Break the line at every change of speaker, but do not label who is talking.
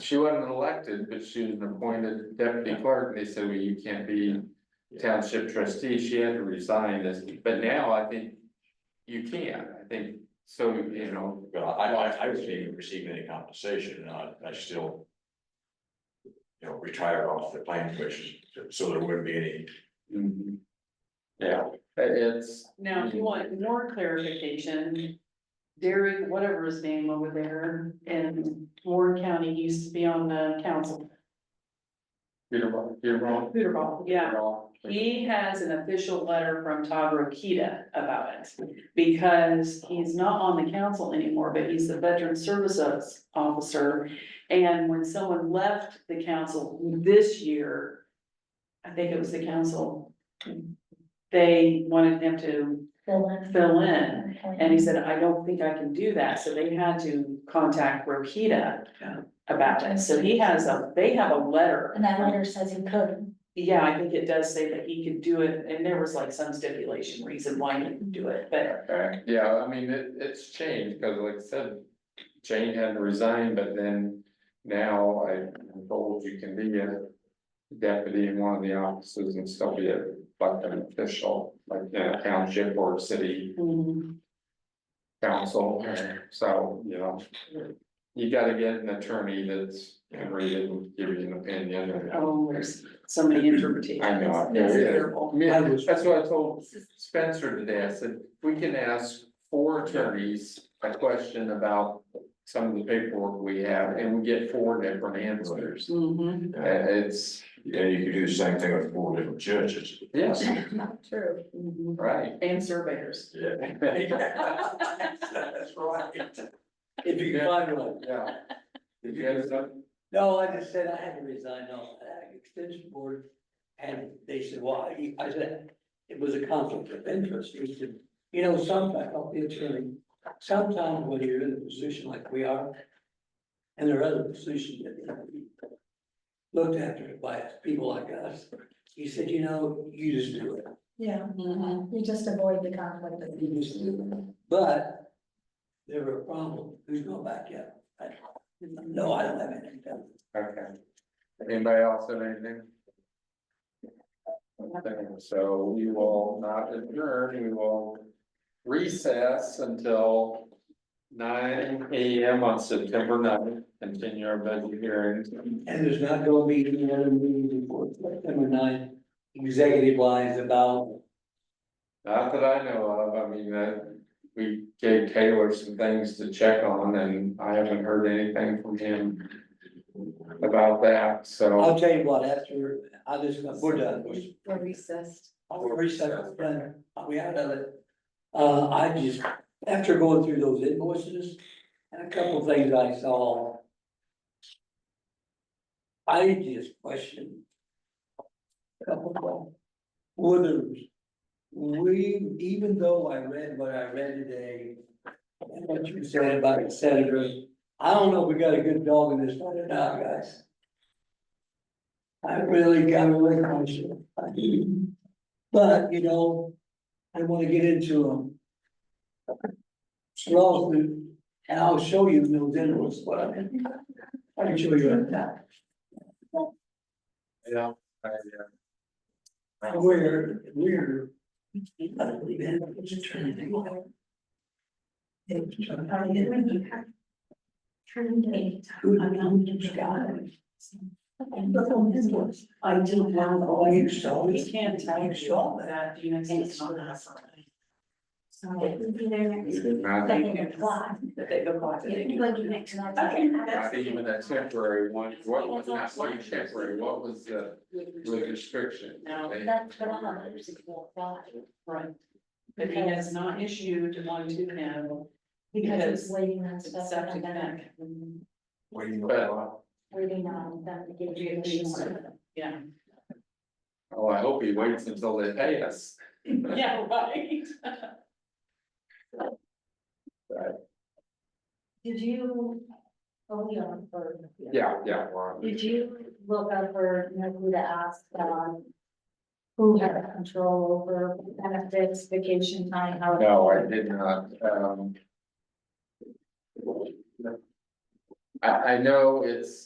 she wasn't elected, but she was an appointed deputy clerk, and they said, well, you can't be township trustee, she had to resign this, but now I think you can, I think, so, you know,
But I, I, I wasn't even receiving any compensation, and I, I still. You know, retired off the planning commission, so there wouldn't be any,
yeah, it's,
Now, if you want more clarification, Derek, whatever his name over there in Warren County used to be on the council.
you're wrong, you're wrong.
Hooterball, yeah.
You're wrong.
He has an official letter from Todd Rokita about it because he's not on the council anymore, but he's the veteran services officer. And when someone left the council this year, I think it was the council, they wanted him to
Fill in.
fill in. And he said, I don't think I can do that, so they had to contact Rokita about it, so he has a, they have a letter.
And that letter says he could.
Yeah, I think it does say that he could do it, and there was like some stipulation reason why he could do it, but
Okay, yeah, I mean, it, it's changed, cause like I said, Jane had to resign, but then now I'm told you can be a deputy in one of the offices and still be a fucking official, like in a township or city
mm,
council, so, you know. You gotta get an attorney that's can read it and give you an opinion and.
oh, there's so many interpretations.
I know, I-
It's terrible.
Yeah, that's what I told Spencer today, I said, we can ask four attorneys a question about some of the paperwork we have, and we get four different answers.
Mm-hmm.
Mhm.
Uh, it's,
and you could do the same thing with four different judges.
yes,
Not true.
Mhm.
right.
and surveyors.
Yeah. That's right.
If you can find one.
Yeah. Did you have some?
No, I just said I had to resign off the Ag extension board. And they said, why? I said, it was a conflict of interest. He said, you know, sometimes, I'll be attorney, sometimes when you're in a position like we are. And there are other positions that need to be looked after by people like us. He said, you know, you just do it.
Yeah,
Mhm.
Uh-huh. you just avoid the conflict.
You just do it. But there were a problem. Who's going back yet? I- No, I don't have anything.
Okay. Anybody else have anything? Okay, So we will not adjourn, we will recess until nine AM on September 9th. continue our budget hearings.
And there's not gonna be any other meeting before September ninth, executive lines about,
Not that I know of, I mean, uh, we gave Taylor some things to check on and I haven't heard anything from him about that, so.
I'll tell you what, after, I just, we're done, we're,
We're recessed.
we're reset, done, we have done it. Uh, I just, after going through those invoices and a couple of things I saw. I just questioned. a Couple of, whether we, even though I read what I read today. And what you said about the senators, I don't know if we got a good dog in this fight or not, guys. I really got a little conscious. But, you know, I wanna get into a lawsuit, and I'll show you those invoices, what I mean. I can show you in that,
Yeah. I, uh,
where, where. You gotta believe in it, it's a turn thing. Who do you got? I didn't have all you saw.
We can't tell
You saw that.
that, you know, it's not.
not-
That they go on to they do.
Not even a temporary one, what was not like temporary, what was the the restriction?
No.
They-
Right. But he has not issued one to him.
Because it's waiting on stuff.
Septic
and then
tank.
But,
Waiting on them to give you. the-
Yeah.
oh, I hope he waits until they pay us.
Yeah, right.
Did you, oh, yeah, or.
Yeah, yeah. we're on.
Did you look up or know who to ask, um, who had control over benefits, vacation time, how?
No, I did not, um. I, I know it's